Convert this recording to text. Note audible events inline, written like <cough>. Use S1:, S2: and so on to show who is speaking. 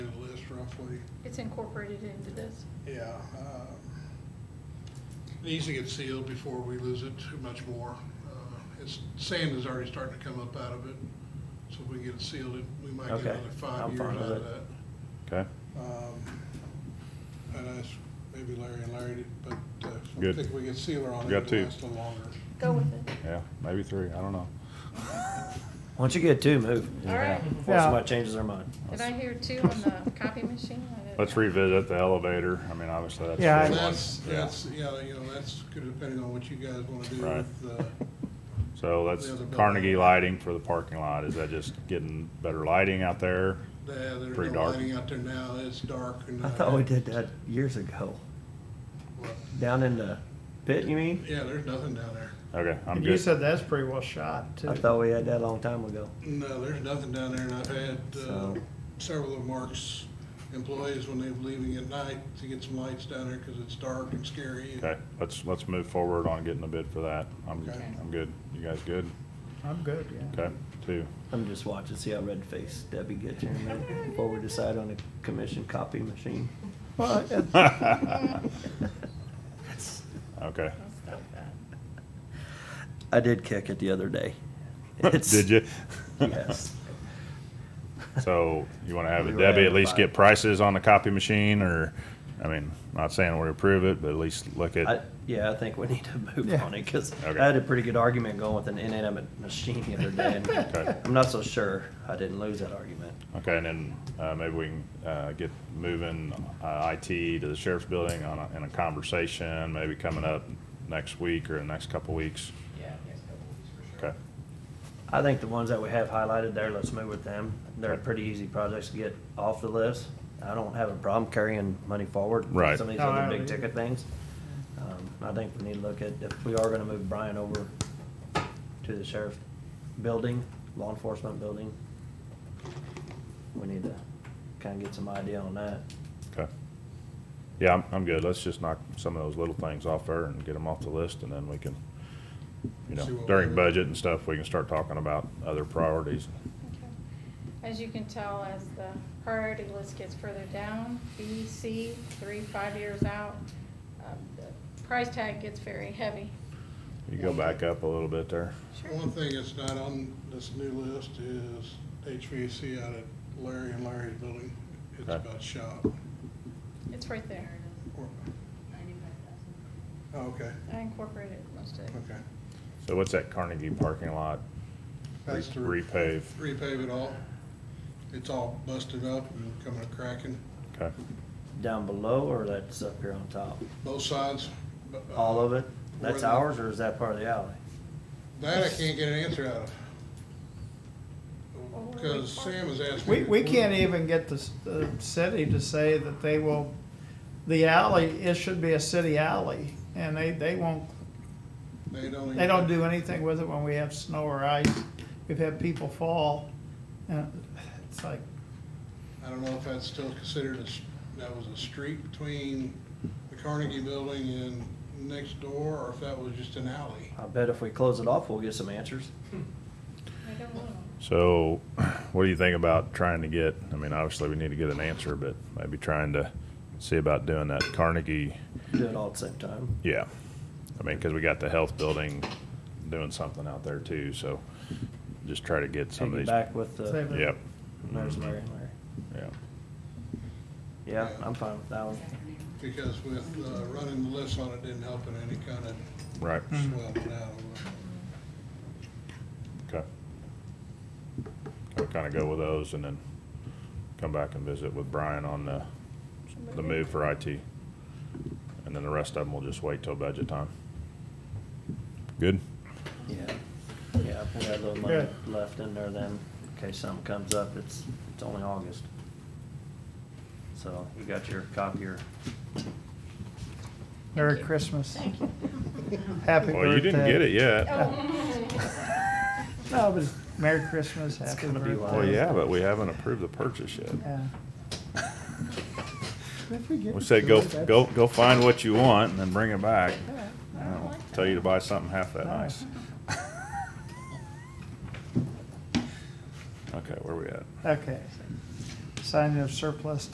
S1: monthly,
S2: It's incorporated into this.
S1: yeah. um, It Needs to get sealed before we lose it too much more. Uh, It's, sand is already starting to come up out of it, so if we get it sealed, it- we might get
S3: Okay,
S1: another five
S3: I'm
S1: years
S3: fine
S1: out
S3: with
S1: of
S3: it.
S1: that.
S4: Okay,
S1: Um, And I, s- maybe Larry and Larry, but uh, I
S4: Good.
S1: think we can sealer on it,
S4: Got
S1: it'll
S4: two.
S1: last a little longer.
S2: Go with it.
S4: yeah, maybe three, I don't know.
S3: Once you get two, move.
S2: All right.
S3: Before
S5: Yeah.
S3: somebody changes their mind.
S2: Did I hear two on the copy machine? I didn't-
S4: Let's revisit the elevator, I mean, obviously, that's. a
S5: Yeah, I-
S4: big
S1: And
S4: one.
S1: that's,
S4: Yeah.
S1: that's, yeah, you know, that's good depending on what you guys want to do
S4: Right.
S1: with the
S4: So that's
S1: The other building.
S4: Carnegie lighting for the parking lot, is that just getting better lighting out there?
S1: Yeah, there's
S4: Pretty
S1: no
S4: dark.
S1: lighting out there now, it's dark and.
S3: <laughs>
S1: uh,
S3: I thought we did that years ago.
S1: Well,
S3: Down in the pit, you mean?
S1: Yeah, there's nothing down there.
S4: Okay, I'm
S5: And you
S4: good.
S5: said that's pretty well shot too.
S3: I thought we had that a long time ago.
S1: No, there's nothing down there, and I've had uh,
S3: So-
S1: several of Mark's employees, when they're leaving at night, to get some lights down there, because it's dark and scary.
S4: Okay, let's, let's move forward on getting a bid for that, I'm,
S1: Okay.
S4: I'm good, you guys good?
S5: I'm good, yeah.
S4: Okay,
S1: <laughs>
S4: two,
S3: I'm just watching, see how red faced Debbie gets here in a minute before we decide on a commission copy machine.
S5: Well, it-
S3: <laughs>
S4: <laughs> okay.
S2: I'll stop that.
S3: I did kick it the other day. It's-
S4: <laughs> Did you?
S3: <laughs> Yes.
S4: <laughs> So you wanna have
S3: We were
S4: Debbie at least
S3: identified.
S4: get prices on the copy machine, or, I mean, not saying we approve it, but at least look
S3: I,
S4: at,
S3: yeah, I think we need to move
S5: Yeah.
S3: on it because
S4: Okay.
S3: I had a pretty good argument going with an inanimate machine the other day. And
S4: <laughs> Okay.
S3: I'm not so sure I didn't lose that argument.
S4: okay, and then, uh, maybe we can, uh, get moving, uh, IT to the sheriff's building on a, in a conversation, maybe coming up next week or the next couple weeks.
S6: Yeah, next couple of weeks for sure.
S4: Okay,
S3: I think the ones that we have highlighted there, let's move with them. They're
S4: Okay.
S3: pretty easy projects to get off the list. I don't have a problem carrying money forward. with
S4: Right.
S3: Some of these
S5: No, I
S3: other
S5: don't
S3: big ticket
S5: either.
S3: things. Um, I think we need to look at, if we are gonna move Brian over to the sheriff building, law enforcement building, we need to kinda get some idea on that.
S4: okay. Yeah, I'm, I'm good. Let's just knock some of those little things off there and get them off the list, and then we can, you know,
S1: See what we
S4: during
S1: do.
S4: budget and stuff, we can start talking about other priorities.
S2: Okay. As you can tell, as the priority list gets further down, B, C, three, five years out, um, the price tag gets very heavy.
S4: You go back up a little bit there.
S1: One thing that's not on this new list is HVAC out at Larry and Larry's building. It's
S4: Okay.
S1: about shop.
S2: It's right there.
S1: Or- oh, Okay,
S2: I incorporated most of it.
S1: okay.
S4: So what's that Carnegie parking lot?
S1: That's to re-
S4: Repave,
S1: repave it all. It's all busted up and coming cracking,
S4: okay.
S3: Down below or that's up here on top?
S1: both sides. but, uh,
S3: All of it? That's
S1: Where the-
S3: ours or is that part of the alley?
S1: That I can't get an answer out of.
S2: Well,
S1: Because Sam has asked me.
S5: We, we can't even get the, s- the city to say that they will, the alley, it should be a city alley. And they, they won't,
S1: They don't. even-
S5: they don't do anything with it when we have snow or ice. We've had people fall and it's like,
S1: I don't know if that's still considered a, s- that was a street between the Carnegie Building and next door, or if that was just an alley.
S3: I bet if we close it off, we'll get some answers.
S2: I don't know.
S4: So what do you think about trying to get, I mean, obviously we need to get an answer, but maybe trying to see about doing that Carnegie.
S3: Do it all at the same time.
S4: Yeah. I mean, cause we got the health building doing something out there too, so just try to get some of
S3: Take it
S4: these.
S3: back with
S5: Save
S3: the,
S5: it.
S4: Yep.
S3: there's
S4: Mhm.
S3: Larry and Larry.
S4: Yeah.
S3: Yeah, I'm fine with that one.
S1: Because with, uh, running the list on it didn't help in any kind of
S4: Right.
S5: Hmm.
S1: swell it out.
S4: Okay. I'll kind of go with those and then come back and visit with Brian on the, the move for IT. And then the rest of them will just wait till budget time. Good?
S3: Yeah. Yeah, if we had a little money
S5: Good.
S3: left in there then, in case something comes up, it's, it's only August. So you got your copier.
S5: Merry Christmas.
S2: Thank you.
S5: Happy birthday.
S4: Well, you didn't get it yet.
S2: Oh. <laughs>
S5: No, but Merry Christmas,
S3: It's
S5: happy
S3: gonna be
S5: birthday.
S3: wild.
S4: <laughs> Well, Oh, yeah, but we haven't approved the purchase yet.
S5: Yeah. If we get
S4: We
S5: it
S4: said, go,
S5: through, that's-
S4: go, go find what you want and then bring it back.
S5: Yeah.
S4: I don't know, Tell you to buy something half that nice. Okay, where we at?
S5: Okay. Signing of surplus